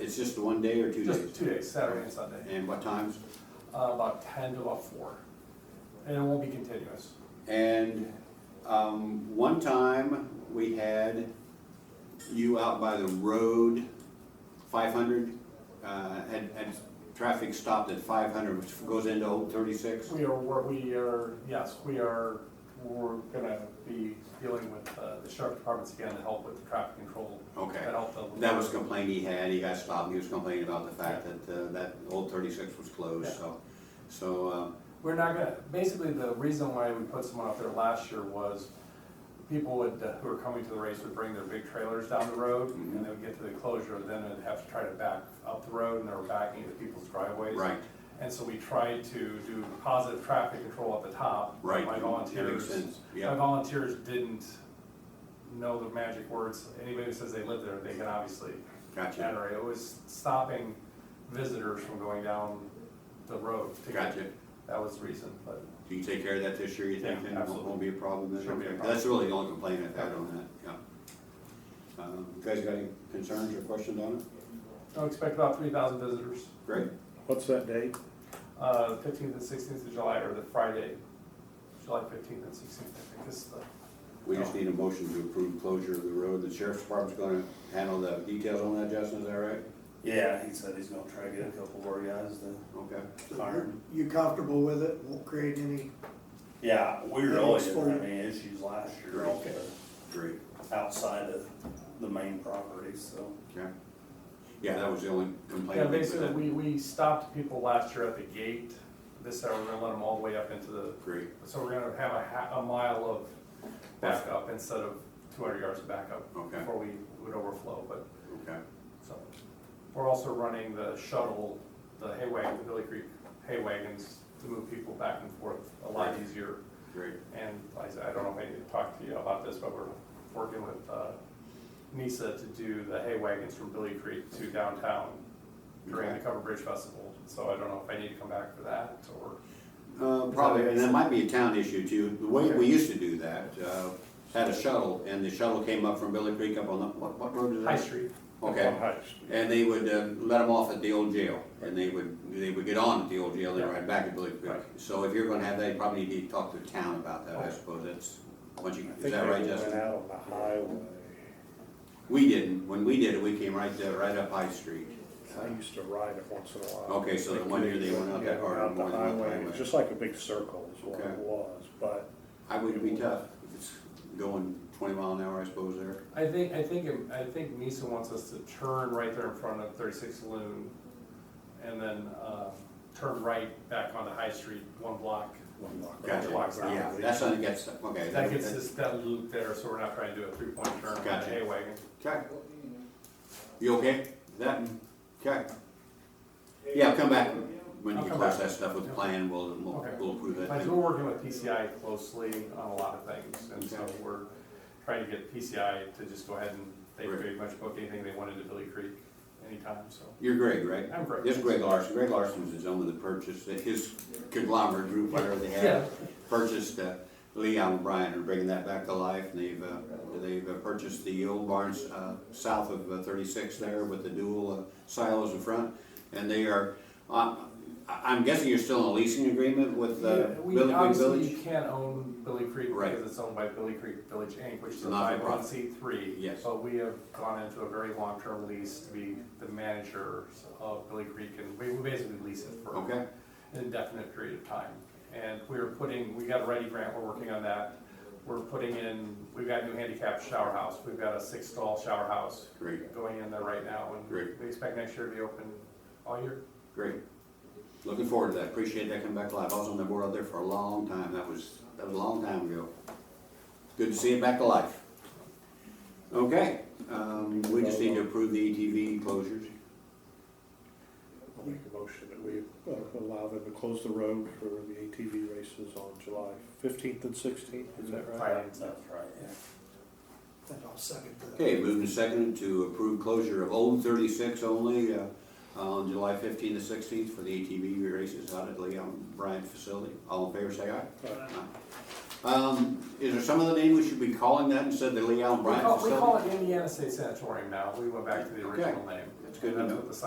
It's just one day or two days? Just two days, Saturday and Sunday, And what times? uh, about ten to about four. And it won't be continuous. And um, one time, we had you out by the road, 500, uh, had, had traffic stopped at 500, which goes into Old 36. We are, wor- we are, yes, we are, we're gonna be dealing with uh, the sheriff departments again to help with the traffic control. Okay. That helped a That little. was a complaint he had, he got stopped, he was complaining about the fact that, uh, that Old 36 was closed, Yeah. so, so, uh, We're not gonna, basically, the reason why we put someone out there last year was people would, uh, who were coming to the race would bring their big trailers down the road, Mm-hmm. and they would get to the closure, then they'd have to try to back up the road, and they were backing into people's driveways. right, And so we tried to do positive traffic control at the top. but Right, My makes volunteers, sense, yeah. my volunteers didn't know the magic words. Anybody who says they live there, they can obviously gotcha, generate. It was stopping visitors from going down the road. to get- gotcha. That was the reason, but Do you take care of that this year, you think, Yeah, then it won't- won't be a problem then? Shouldn't be a Okay. problem. That's really the only complaint I've had on that, yeah. Um, you guys got any concerns or questions on it? I expect about three thousand visitors. Great, What's that date? Uh, fifteenth and sixteenth of July, or the Friday, July fifteenth and sixteenth, I think is the, we just need a motion to approve closure of the road, the sheriff's department's gonna handle the details on that, Justin, is that right? Yeah, he said he's gonna try to get a couple more guys to, Okay, So Iron. You comfortable with it, won't create any, yeah, we Yeah, really it's didn't have fine. any issues last year Okay. uh, great, outside of the main property, so. okay. Yeah, that was the only complaint. Yeah, I made, but basically, that- we, we stopped people last year at the gate, this hour, we're gonna let them all the way up into the, Great, so we're gonna have a ha, a mile of backup instead of two hundred yards of backup. Okay. Before we would overflow, but, okay, so, we're also running the shuttle, the hay wagon, the Billy Creek hay wagons to move people back and forth a lot Right. easier. great, And I, I don't know if I need to talk to you about this, but we're working with, uh, NISA to do the hay wagons from Billy Creek to downtown during the Okay. Cover Bridge Festival, so I don't know if I need to come back for that, or, Uh, probably, and that might be a town issue too. The way we used to do that, uh, had a shuttle, and the shuttle came up from Billy Creek up on the, what, what road is that? High Street. Okay, High Street. and they would, uh, let them off at the old jail, and they would, they would get on at the old jail, and Yeah. ride back at Billy Creek. Right. So if you're gonna have that, you probably need to talk to the town about that, I suppose, that's, once you, I is think that they right, went Justin? out on the highway. We didn't, when we did it, we came right there, right up High Street. I used to ride it once in a while. Okay, so the one year they went out that hard Out more the than one highway, highway. it's just like a big circle is what it Okay. was, but I would be tough, if it's going twenty mile an hour, I suppose, there. I think, I think, it- I think NISA wants us to turn right there in front of thirty-six saloon, and then, uh, turn right back onto High Street, one block. one block. Gotcha, Blocks out. yeah, that's something that gets, okay. That gets us that loop there, so we're not trying to do a three-point turn on the Gotcha. hay wagon. Okay. You okay? Is That, okay. Yeah, come back when you I'll come close back. that stuff with the plan, we'll, we'll, Okay. we'll approve that Because thing. we're working with PCI closely on a lot of things, and so Okay. we're trying to get PCI to just go ahead and they Right. pretty much book anything they wanted to Billy Creek anytime, so. You're Greg, right? I'm great. This is Greg Larson, Greg Larson's the gentleman that purchased, that his conglomerate group, whatever they Yeah. have, purchased, uh, Leon O'Brien and bringing that back to life, and they've, uh, they've uh, purchased the old barns, uh, south of uh, thirty-six there with the dual uh, silos in front, and they are, uh, I, I'm guessing you're still in a leasing agreement with, uh, Yeah, We, Billy Creek obviously, you Village? can't own Billy Creek Right. because it's owned by Billy Creek Village Inc., which is a Not for five oh one profit. C three. Yes. But we have gone into a very long-term lease to be the managers of Billy Creek, and we, we basically lease it for Okay, an indefinite period of time. And we're putting, we got a ready grant, we're working on that. We're putting in, we've got a new handicap shower house, we've got a six stall shower house great. going in there right now. and Great. We expect next year to be open all year. Great. Looking forward to that. Appreciate that coming back live. I was on the board out there for a long time. That was, that was a long time ago. Good to see it back to life. Okay, um, we just need to approve the ATV closures. I'll make a motion that we uh, allow them to close the road for the ATV races on July fifteenth and sixteenth, is that right? Right. That's right, yeah. then I'll second that. Okay, moved and seconded to approve closure of Old Thirty-Six only, uh, on July fifteenth to sixteenth for the ATV races out at Leon Bryant facility. All in favor, say aye. Aye. Um, is there some other name we should be calling that instead of the Leon We Bryant call, we facility? call it Indiana State Sanatorium now, we went back to the original name. That's good to And know. what the